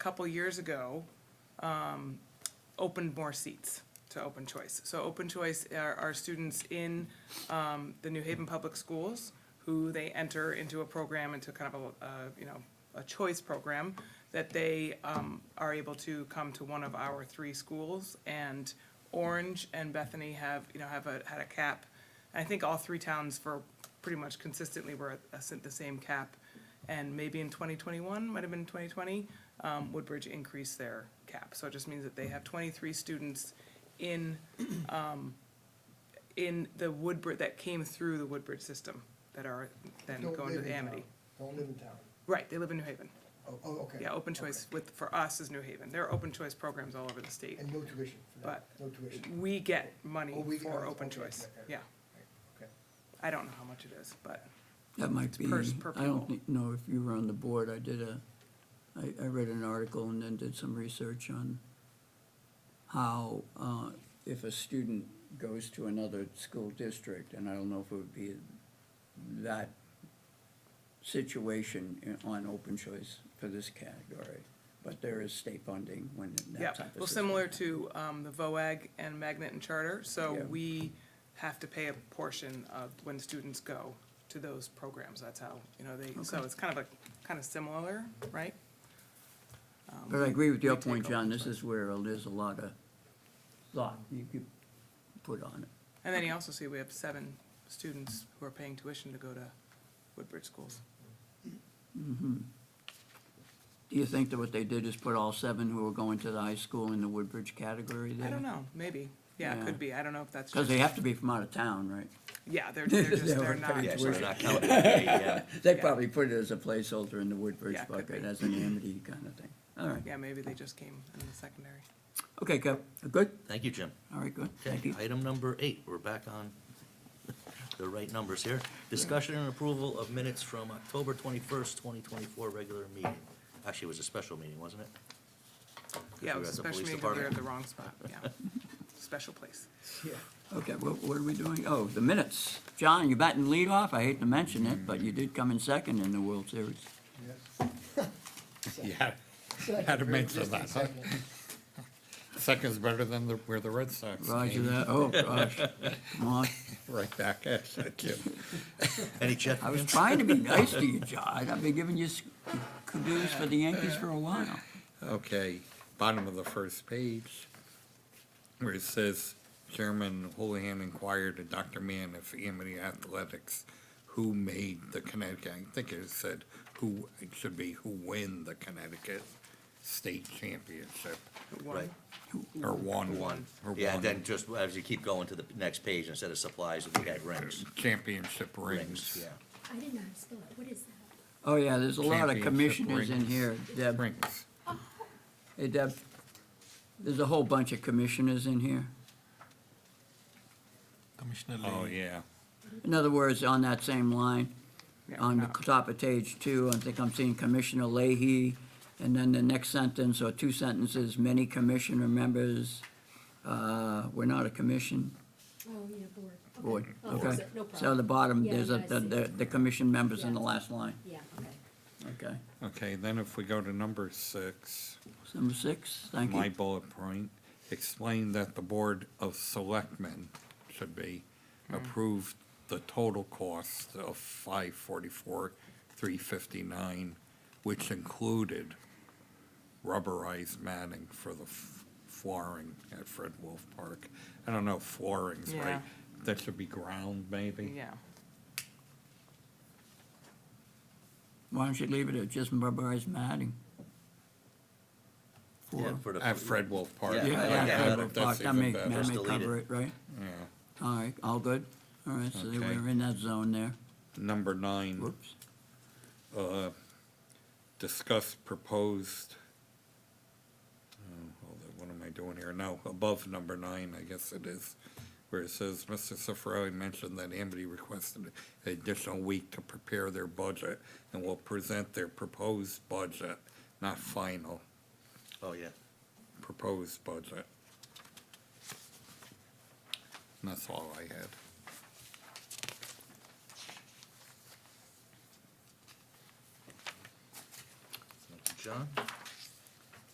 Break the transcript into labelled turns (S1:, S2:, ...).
S1: couple years ago, um, opened more seats to open choice. So open choice are, are students in, um, the New Haven Public Schools who they enter into a program, into kind of a, uh, you know, a choice program that they, um, are able to come to one of our three schools. And Orange and Bethany have, you know, have a, had a cap. I think all three towns for pretty much consistently were at a- the same cap. And maybe in 2021, might have been 2020, um, Woodbridge increased their cap. So it just means that they have 23 students in, um, in the Woodbridge, that came through the Woodbridge system that are then
S2: Don't
S1: going to
S2: live
S1: the
S2: in
S1: Amity.
S2: town. Don't live in town.
S1: Right, they live in New Haven.
S2: Oh, oh, okay.
S1: Yeah, open choice with, for us is New Haven. There are open choice programs all over the state.
S2: And no tuition for that, no tuition.
S1: We get money
S2: Oh, we-
S1: for
S2: oh,
S1: open
S2: okay,
S1: choice,
S2: okay, okay.
S1: yeah.
S2: Okay.
S1: I don't know how much it is, but
S3: That might be,
S1: per- per
S3: I don't
S1: pupil.
S3: thi- know if you were on the board, I did a, I, I read an article and then did some research on how, uh, if a student goes to another school district, and I don't know if it would be that situation i- on open choice for this category, but there is state funding when
S1: Yeah,
S3: that type of system.
S1: well, similar to um, the VOAG and Magnet and Charter, so
S3: Yeah.
S1: we have to pay a portion of when students go to those programs, that's how, you know, they, so
S3: Okay.
S1: it's kind of a, kind of similar, right?
S3: But I agree with your
S1: we take
S3: point, John,
S1: open
S3: this
S1: choice.
S3: is where there's a lot of thought you could put on it.
S1: And then you also see we have seven students who are paying tuition to go to Woodbridge schools.
S3: Do you think that what they did is put all seven who were going to the high school in the Woodbridge category there?
S1: I don't know, maybe, yeah, it
S3: Yeah.
S1: could be, I don't know if that's
S3: Because
S1: just,
S3: they have to be from out of town, right?
S1: yeah, they're, they're just,
S3: They
S1: they're
S3: were
S1: not,
S3: paying
S4: Yeah,
S3: It's
S4: so
S3: worth
S4: they're not counting. Yeah, yeah.
S3: They
S1: Yeah.
S3: probably put it as a placeholder in the Woodbridge
S1: Yeah, could
S3: bucket,
S1: be.
S3: as an amity kind of thing. All right.
S1: yeah, maybe they just came in the secondary.
S3: Okay, Kev, good?
S4: Thank you, Jim.
S3: All right, good. Thank
S4: Okay,
S3: you.
S4: item number eight, we're back on the right numbers here. Discussion and approval of minutes from October twenty-first, twenty twenty-four, regular meeting. Actually, it was a special meeting, wasn't it? 'Cause
S1: Yeah, it was
S4: we were at the
S1: especially
S4: police
S1: meeting, 'cause we were at
S4: department.
S1: the wrong spot, yeah, special place.
S3: Okay, what, what are we doing? Oh, the minutes. John, you batting lead off? I hate to mention it, but you did come in second in the World Series.
S2: Yes.
S5: Yeah,
S2: Second,
S5: Had to
S2: very
S5: mention
S2: distant
S5: that, huh?
S2: second.
S5: second's better than the, where the Red Sox.
S3: Roger
S5: came.
S3: that. Oh, gosh. Come on.
S5: Right back at you, kid.
S4: Any check?
S3: I was trying to be nice to you, John. I've been giving you s- kudos for the Yankees for a while.
S5: Okay, bottom of the first page, where it says, Chairman Houlihan inquired of Dr. Mann if Amity Athletics, who made the Connecticut, I think it said, who, it should be who win the Connecticut State Championship,
S1: One.
S4: Right.
S5: or won.
S4: One.
S5: or
S4: Yeah, and
S5: won
S4: then just as you keep going to the next page, instead of supplies, we had rings.
S5: Championship rings.
S4: Rings, yeah.
S6: I did not spell it. What is that?
S3: Oh, yeah, there's a lot of
S5: Championship
S3: commissioners in
S5: rings.
S3: here, Deb.
S5: Rings.
S3: Hey, Deb, there's a whole bunch of commissioners in here.
S7: Commissioner
S5: Oh,
S7: Lane.
S5: yeah.
S3: In other words, on that same line,
S1: Yeah,
S3: on the
S1: no.
S3: top of page two, I think I'm seeing Commissioner Leahy, and then the next sentence, or two sentences, many commissioner members, uh, we're not a commission
S6: Oh, yeah, board. Okay.
S3: board,
S6: I'll fix
S3: okay?
S6: Oh, it. No
S3: So at the
S6: problem.
S3: bottom,
S6: Yeah,
S3: there's a,
S6: I
S3: the,
S6: see.
S3: the- the commission members in the
S6: Yeah.
S3: last line,
S6: Yeah, okay.
S3: okay?
S5: Okay, then if we go to number six,
S3: Number six, thank
S5: my
S3: you.
S5: bullet point, explain that the Board of Selectmen should be approved the total cost of five forty-four, three fifty-nine, which included rubberized matting for the f- flooring at Fred Wolf Park. I don't know if flooring's right.
S1: Yeah.
S5: That should be ground, maybe?
S1: Yeah,
S3: Why don't you leave it at just rubberized matting?
S4: Yeah,
S3: For-
S4: for the-
S5: At Fred Wolf Park.
S4: Yeah,
S3: Yeah,
S4: yeah,
S3: yeah,
S4: yeah,
S3: Fred
S4: that-
S3: Wolf
S5: that's
S3: Park, that
S5: even
S3: may,
S5: better.
S3: that
S4: Just
S3: may
S4: delete
S3: cover it, right?
S5: Yeah.
S3: All right, all good? All right, so they
S5: Okay. Mm.
S3: were in that zone there.
S5: Number nine.
S3: Whoops.
S5: uh, discuss proposed, oh, hold on, what am I doing here? No, above number nine, I guess it is, where it says, Mr. Cifarelli mentioned that Amity requested an additional week to prepare their budget and will present their proposed budget, not final,
S4: Oh, yeah.
S5: proposed budget. And that's all I had.
S4: Thank you, John,